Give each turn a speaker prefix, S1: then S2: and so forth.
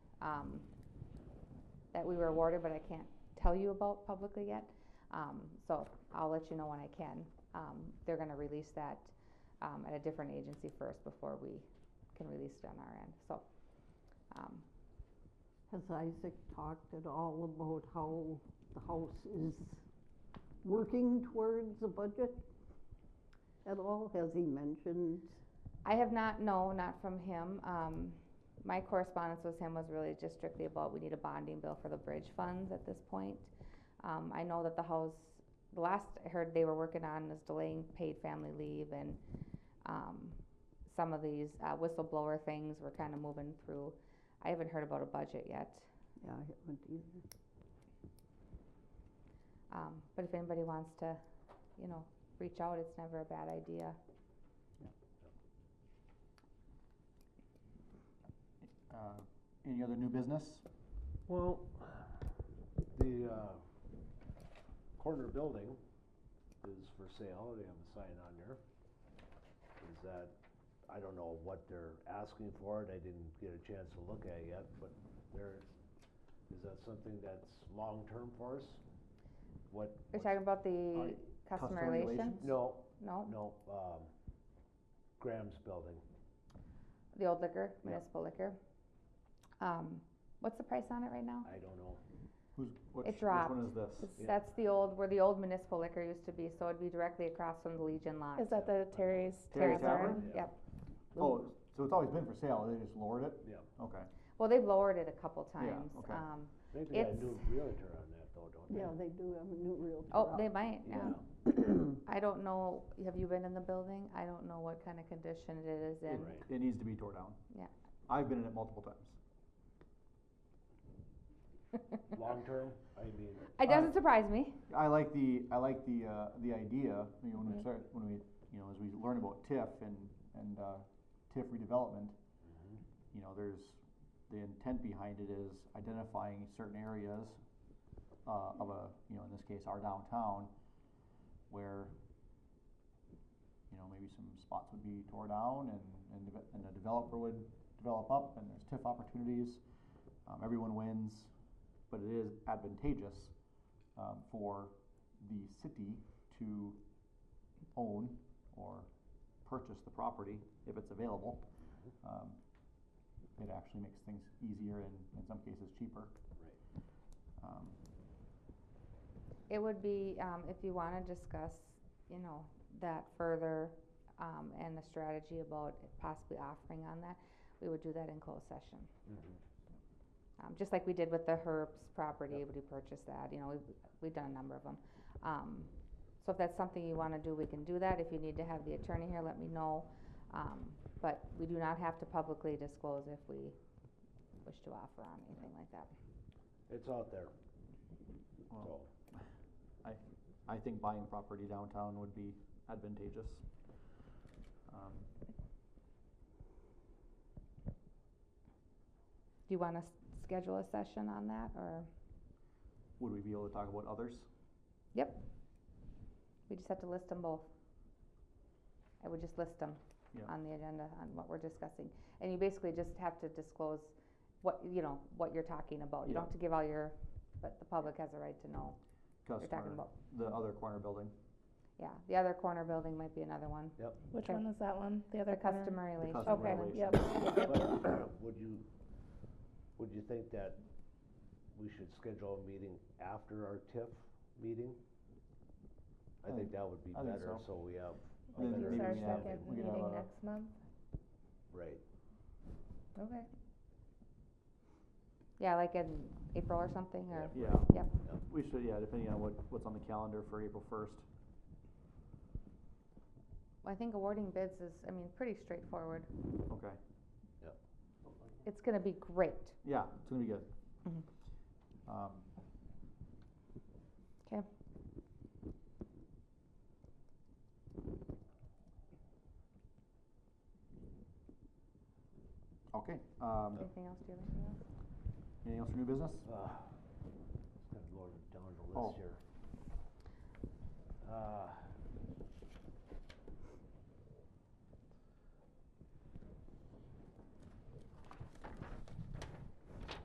S1: um, that we were awarded, but I can't tell you about publicly yet. Um, so I'll let you know when I can. Um, they're gonna release that, um, at a different agency first before we can release it on our end, so. Um,
S2: Has Isaac talked at all about how the house is working towards a budget at all? Has he mentioned?
S1: I have not, no, not from him. Um, my correspondence with him was really just strictly about, we need a bonding bill for the bridge funds at this point. Um, I know that the House, the last I heard they were working on is delaying paid family leave and, um, some of these uh, whistleblower things were kind of moving through. I haven't heard about a budget yet.
S2: Yeah, I haven't either.
S1: Um, but if anybody wants to, you know, reach out, it's never a bad idea.
S3: Uh, Any other new business?
S4: Well, the uh, corner building is for sale, they have a sign on there. Is that, I don't know what they're asking for, it. I didn't get a chance to look at it yet, but there, is that something that's long-term for us? What?
S1: You're
S4: what's-
S1: talking about the
S3: Alright,
S1: customer
S3: customer
S1: relations?
S3: relations?
S4: No,
S1: No,
S4: no, um, Graham's building,
S1: the old liquor,
S4: Yeah.
S1: municipal liquor. Um, what's the price on it right now?
S4: I don't know.
S3: Who's, which,
S1: It
S3: which one
S1: dropped.
S3: is this?
S1: It's-
S4: Yeah.
S1: That's the old, where the old municipal liquor used to be, so it'd be directly across from the Legion lot.
S5: Is that the Terry's?
S3: Terry's
S5: Tavern?
S3: Tavern?
S4: Yeah.
S1: Yep.
S3: Oh, so it's always been for sale, they just lowered it?
S4: Yeah.
S3: Okay.
S1: Well, they've lowered it a couple
S3: Yeah,
S1: times.
S3: okay.
S1: Um,
S4: They got a
S1: It's-
S4: new realtor on that though, don't they?
S2: Yeah, they do have a new realtor.
S1: oh,
S2: out.
S1: they might, yeah.
S4: Yeah.
S1: I don't know, have you been in the building? I don't know what kind of condition it is in.
S4: Right.
S3: It needs to be tore down.
S1: Yeah.
S3: I've been in it multiple times.
S4: Long-term, I mean,
S1: It
S3: Uh,
S1: doesn't surprise me.
S3: I like the, I like the, uh, the idea, you know, when
S1: Mhm.
S3: we start, when we, you know, as we learn about TIF and, and, uh, TIF redevelopment,
S4: mm-hmm,
S3: you know, there's, the intent behind it is identifying certain areas, uh, of a, you know, in this case, our downtown, where, you know, maybe some spots would be tore down and, and, deve- and a developer would develop up and there's TIF opportunities, um, everyone wins, but it is advantageous, um, for the city to own or purchase the property if it's available. Um, it actually makes things easier and in some cases cheaper. Um,
S1: It would be, um, if you wanna discuss, you know, that further, um, and the strategy about possibly offering on that, we would do that in closed session.
S4: Mhm.
S1: Um, just like we did with the Herbst property, we purchased that, you know, we've, we've done a number of them. Um, so if that's something you wanna do, we can do that, if you need to have the attorney here, let me know. Um, but we do not have to publicly disclose if we wish to offer on anything like that.
S4: It's out there,
S3: well,
S4: so.
S3: I think buying property downtown would be advantageous. Um,
S1: Do you wanna s- schedule a session on that, or
S3: would we be able to talk about others?
S1: we just have to list them both? I would just list them
S3: Yeah.
S1: on the agenda, on what we're discussing, and you basically just have to disclose what, you know, what you're talking about, you
S3: Yeah.
S1: don't have to give all your, but the public has a right to know what you're talking
S3: Customer,
S1: about.
S3: the other corner building,
S1: Yeah, the other corner building might be another one,
S5: Which
S1: Okay.
S5: one is that one? The
S1: the
S5: other corner?
S1: customer
S3: the
S1: relations.
S3: customer
S5: Okay,
S3: relations.
S5: yep.
S4: But would you, would you think that we should schedule a meeting after our TIF meeting? I
S3: I
S4: think that would be
S3: Um, I think
S4: better,
S3: so.
S4: so we have. a
S3: Then
S4: better
S3: maybe
S5: It's our
S3: we can have-
S4: understanding.
S5: second
S3: we can have
S5: meeting
S3: a-
S5: next month?
S4: Right,
S5: Okay.
S1: Yeah, like in April or something, or,
S4: Yep.
S3: Yeah.
S1: Yep.
S3: We should, yeah, depending on what, what's on the calendar for April first.
S1: I think awarding bids is, I mean, pretty straightforward,
S3: Okay,
S1: it's gonna be great.
S3: yeah, it's gonna be good.
S1: Mhm.
S3: Um,
S1: 'Kay.
S3: Okay, um,
S1: Anything else, do you have anything else?
S3: anything else for new business?
S4: uh, just gonna go down the
S3: Oh.
S4: list here. Uh,